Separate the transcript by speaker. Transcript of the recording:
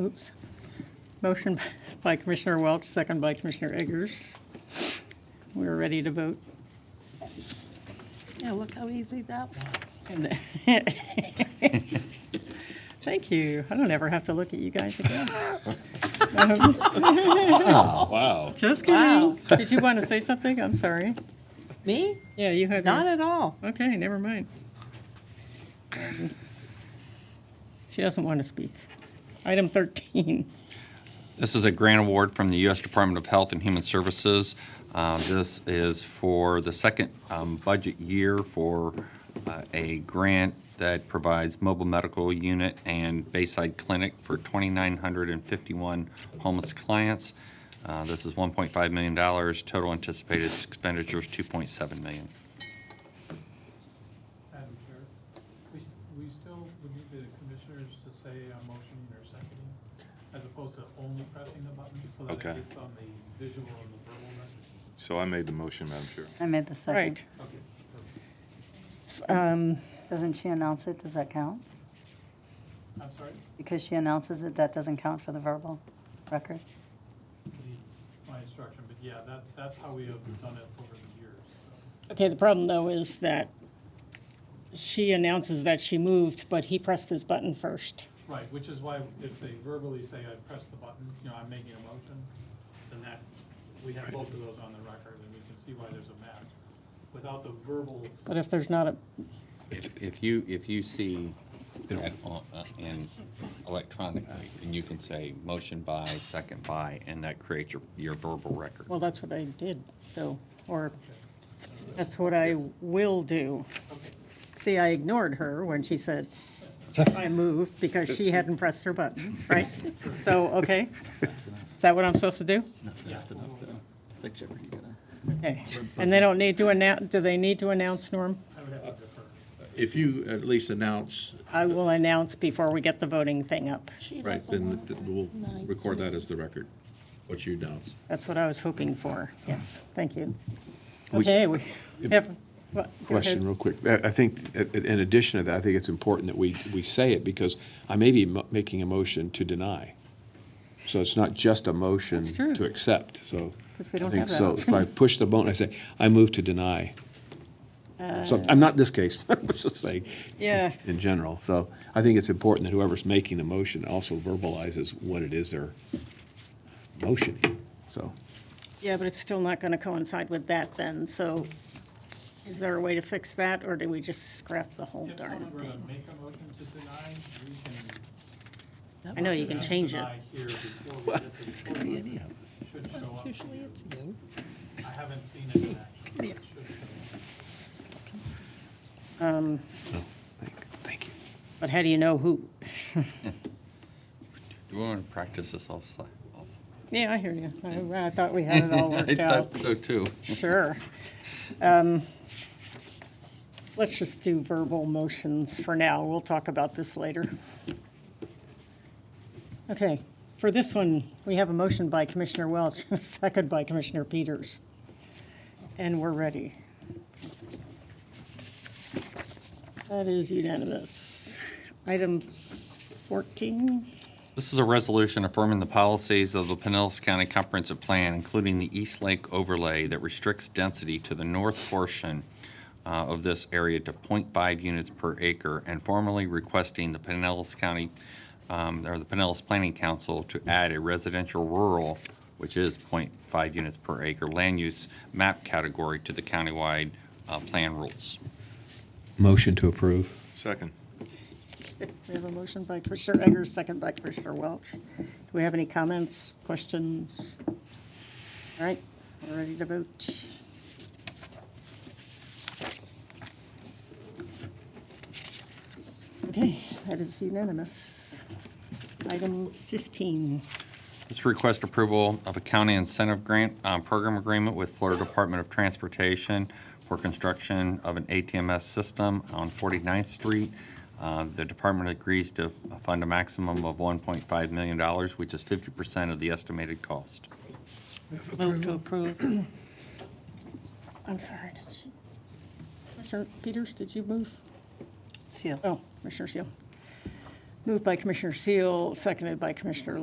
Speaker 1: Oops. Motion by Commissioner Welch, second by Commissioner Eggers. We're ready to vote.
Speaker 2: Yeah, look how easy that was.
Speaker 1: And- Thank you. I don't ever have to look at you guys again.
Speaker 3: Wow.
Speaker 1: Just
Speaker 2: Wow.
Speaker 1: kidding. Did you want to say something? I'm sorry.
Speaker 2: Me?
Speaker 1: Yeah, you had. your-
Speaker 2: Not at all.
Speaker 1: Okay, never mind. Um, She doesn't want to speak. Item 13.
Speaker 4: This is a grant award from the U.S. Department of Health and Human Services. Uh, This is for the second um, budget year for uh, a grant that provides mobile medical unit and Bayside Clinic for 2,951 homeless clients. Uh, This is $1.5 million. Total anticipated expenditures, $2.7 million.
Speaker 5: Madam Chair, we, s- we still would need the commissioners to say a motion or seconding, as opposed to only pressing the button, so that
Speaker 3: Okay.
Speaker 5: it gets on the visual and the verbal message.
Speaker 3: So I made the motion, Madam Chair.
Speaker 6: I made the second.
Speaker 1: Right.
Speaker 5: Okay. perfect.
Speaker 1: Um,
Speaker 6: Doesn't she announce it? Does that count?
Speaker 5: I'm sorry,
Speaker 6: Because she announces it, that doesn't count for the verbal record?
Speaker 5: the- my instruction, but yeah, that, that's how we have done it over the years.
Speaker 1: Okay, the problem though is that she announces that she moved, but he pressed his button first.
Speaker 5: Right, which is why if they verbally say, I press the button, you know, I'm making a motion, then that, we have both of those on the record, and we can see why there's a match. Without the verbal
Speaker 1: But if there's not a,
Speaker 4: If if you, if you see that on- uh, in electronically, and you can say motion by, second by, and that creates your your verbal record.
Speaker 1: well, that's what I did though, or that's what I will do. See, I ignored her when she said, I moved because she hadn't pressed her button, right? So, okay, is that what I'm supposed to do?
Speaker 7: Fast enough, though. It's like Jeopardy, you gotta.
Speaker 1: Okay, and they don't need to announce, do they need to announce, Norm?
Speaker 5: I would have to defer.
Speaker 8: If you at least announce,
Speaker 1: I will announce before we get the voting thing up.
Speaker 8: right, then th- we'll record that as the record, what you announce.
Speaker 1: That's what I was hoping for, yes, thank you.
Speaker 9: We-
Speaker 1: Okay, we have. what- go ahead.
Speaker 9: question real quick. I I think, i- i- in addition to that, I think it's important that we, we say it because I may be mo- making a motion to deny. So it's not just a motion
Speaker 1: That's true.
Speaker 9: to accept, so.
Speaker 1: 'Cause we
Speaker 9: I
Speaker 1: don't
Speaker 9: think
Speaker 1: have that
Speaker 9: So if I push the button, I say, I move to deny. So I'm not this case, I'm just saying,
Speaker 1: Uh, Yeah,
Speaker 9: in general. So I think it's important that whoever's making the motion also verbalizes what it is they're motioning, so.
Speaker 1: yeah, but it's still not going to coincide with that then, so is there a way to fix that, or do we just scrap the whole
Speaker 5: If
Speaker 1: darn
Speaker 5: someone were to
Speaker 1: thing?
Speaker 5: make a motion to deny, we can.
Speaker 1: I know you can change it.
Speaker 5: Deny here before we get to the court. Should show up.
Speaker 2: Usually it's you.
Speaker 5: I haven't seen it in action. but it should show up.
Speaker 9: thank- Thank you.
Speaker 1: But how do you know who?
Speaker 4: Do we want to practice this offsite?
Speaker 1: Yeah, I hear you. I I thought we had it all
Speaker 4: I
Speaker 1: worked out.
Speaker 4: thought so too.
Speaker 1: Sure. Um, Let's just do verbal motions for now. We'll talk about this later. Okay, for this one, we have a motion by Commissioner Welch, a second by Commissioner Peters. And we're ready. That is unanimous. Item 14,
Speaker 4: This is a resolution affirming the policies of the Pinellas County Comprehensive Plan, including the East Lake overlay that restricts density to the north portion uh, of this area to .5 units per acre, and formally requesting the Pinellas County, um, or the Pinellas Planning Council to add a residential rural, which is .5 units per acre, land use map category to the countywide uh, plan rules.
Speaker 9: Motion to approve.
Speaker 3: Second.
Speaker 1: we have a motion by Commissioner Eggers, second by Commissioner Welch. Do we have any comments, questions? All right, we're ready to vote. Okay, that is unanimous. Item 15.
Speaker 4: This request approval of a county incentive grant uh, program agreement with Florida Department of Transportation for construction of an ATMS system on 49th Street. Uh, The department agrees to fund a maximum of $1.5 million, which is 50% of the estimated cost.
Speaker 2: Move to approve.
Speaker 1: I'm sorry, did you, Commissioner Peters, did you move?
Speaker 6: Seal.
Speaker 1: Oh, Commissioner Seal. Moved by Commissioner Seal, seconded by Commissioner